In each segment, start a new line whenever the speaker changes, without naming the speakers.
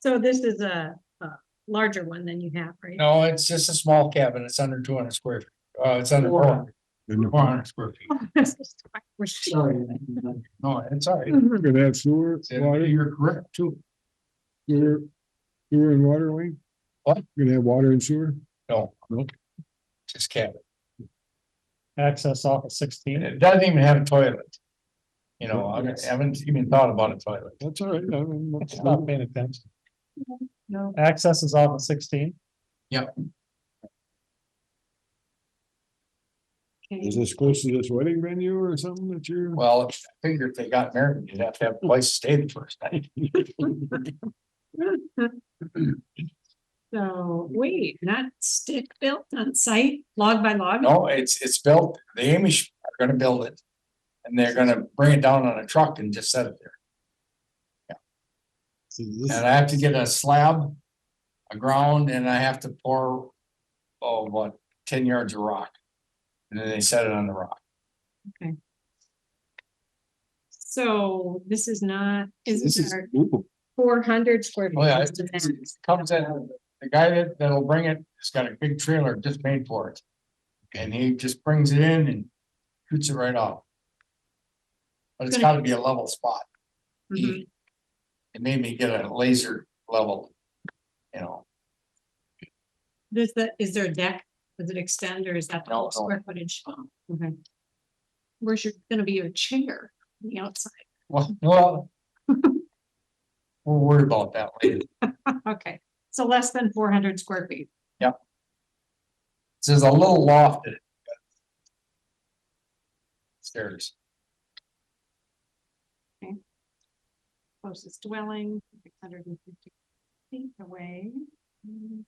So this is a, a larger one than you have, right?
No, it's just a small cabin. It's under two hundred square, feet. uh, it's under four hundred square feet. Sorry. No, it's all right.
Look at that sewer,
It's in-
water,
You're correct too.
sewer, sewer and water, Wayne?
What?
You're gonna have water and sewer?
No.
Nope.
Just cabin.
access off of
And
sixteen.
it doesn't even have a toilet. You know, I
Yes.
haven't even thought about a toilet.
That's all right. I mean, that's-
Stop paying attention.
No.
Access is off of sixteen.
Is this close to this wedding venue or something that you're?
Well, I figured if they got married, you'd have to have a place to stay the first night.
So, wait, not stick built on site, log by log?
No, it's, it's built, the Amish are gonna build it. And they're gonna bring it down on a truck and just set it there.
So this-
And I have to get a slab, a ground, and I have to pour, oh, what, ten yards of rock. And then they set it on the rock.
So this is not,
This
isn't
is,
there
ooh,
four hundred square?
Oh, yeah,
feet
it
to
it's-
that?
it comes in, the guy that, that'll bring it, has got a big trailer just paid for it. And he just brings it in and shoots it right off. But it's
Gonna-
gotta be a level spot.
Mhm.
It made me get a laser level, you know,
Does that, is there a deck? Does it extend or is that the
No,
whole
no.
square footage? Oh, Okay. Where's your, gonna be your chair on the outside?
well, well. We'll worry about that later.
Okay, so less than four hundred square feet.
So There's a little loft in it. Stairs,
closest dwelling, six hundred and fifty feet away. Mm,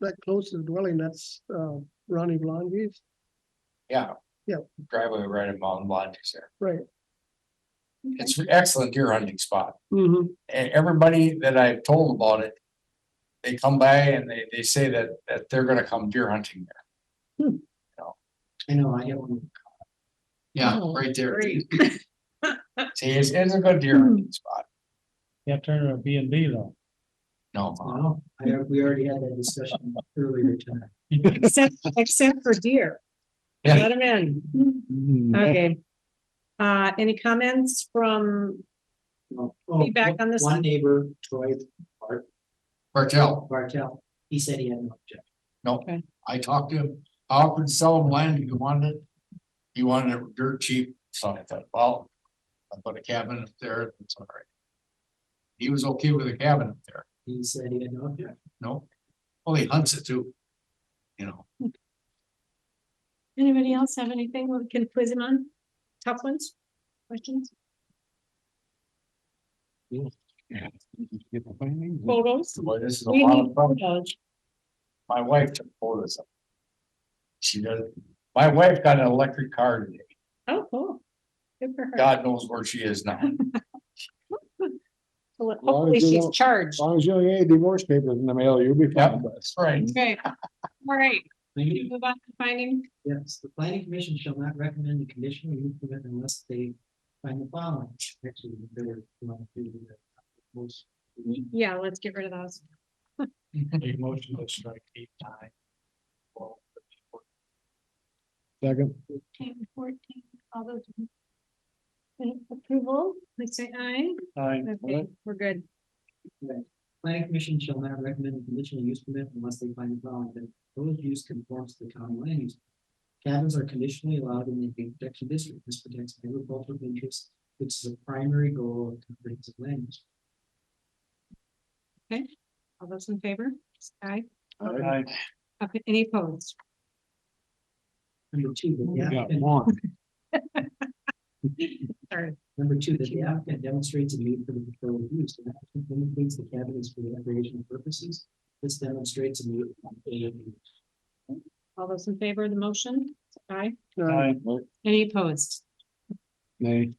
that close to the dwelling, that's uh Ronnie Blondie's,
yeah.
Yeah.
Driveway right in Mountain Lodge is there.
right?
okay.
It's an excellent deer hunting spot.
Mm-hmm.
and everybody that I've told about it. They come by and they, they say that, that they're gonna come deer hunting there.
Hmm.
I know, I own. Yeah,
Oh,
right there. See,
great.
it's, it's a good deer hunting spot.
You have to turn it to a B and B though.
No, uh,
Wow, I, we already had that discussion earlier tonight.
Except, except for deer.
Yeah. Mm-hmm.
Let them in.
Mm-hmm.
Okay. Uh, any comments from,
Well, oh,
Feedback on this one?
One neighbor, Troy
Martell,
Bartel, he said he had no objection.
no,
Okay.
I talked to him, I offered to sell him land, he wanted it. He wanted it dirt cheap, so I thought, well, I put a cabin up there, it's all right. He was okay with a cabin up there.
He said he had no objection.
No, well, he hunts it too. You know,
anybody else have anything we can quiz him on? Tough ones? Questions?
Get the findings.
Photos?
boy, this is Mm-hmm. a
We
lot
need
of fun.
photos.
My wife took photos of. it. She does, my wife got an electric car today.
Oh, cool. Good for her.
God knows where she is now.
Well,
long as
Hopefully
they
she's
don't-
charged.
As long as you don't get any divorce papers in the mail, you'll be
Yep,
fine.
that's right.
Okay. All right,
Maybe,
move on to finding
Yes, the planning commission shall not recommend the conditional use permit unless they find the following. Actually, they're going to do the most.
Yeah, let's get rid of those.
Make motion to strike eight nine.
Second,
Ten, fourteen, all those. in- in Approval, please say aye.
Nine.
Okay, we're good.
Planning commission shall not recommend a conditional use permit unless they find the following, that proposed use conforms to the county land use. Cabins are conditionally allowed in the Game protection district, this protects agricultural interests, which is a primary goal of comprehensive land use.
All those in favor? say Aye.
Nine.
Okay, any opposed?
Number two, that
we
the
got
applicant,
one.
Sorry.
number two, that the applicant demonstrates a need for the proposed use, the applicant indicates the cabin is for recreational purposes. This demonstrates a need. for the proposed use.
All those in favor of the motion? say Aye.
Nine.
Any opposed?
Nay.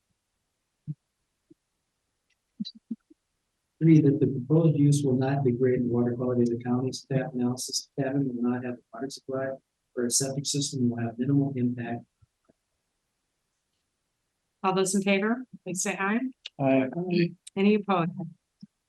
Three, that the proposed use will not degrade the water quality of the county staff analysis cabin will not have a water supply or a septic system will have minimal impact.
All those in favor, please say aye.
Nine.
Any opposed?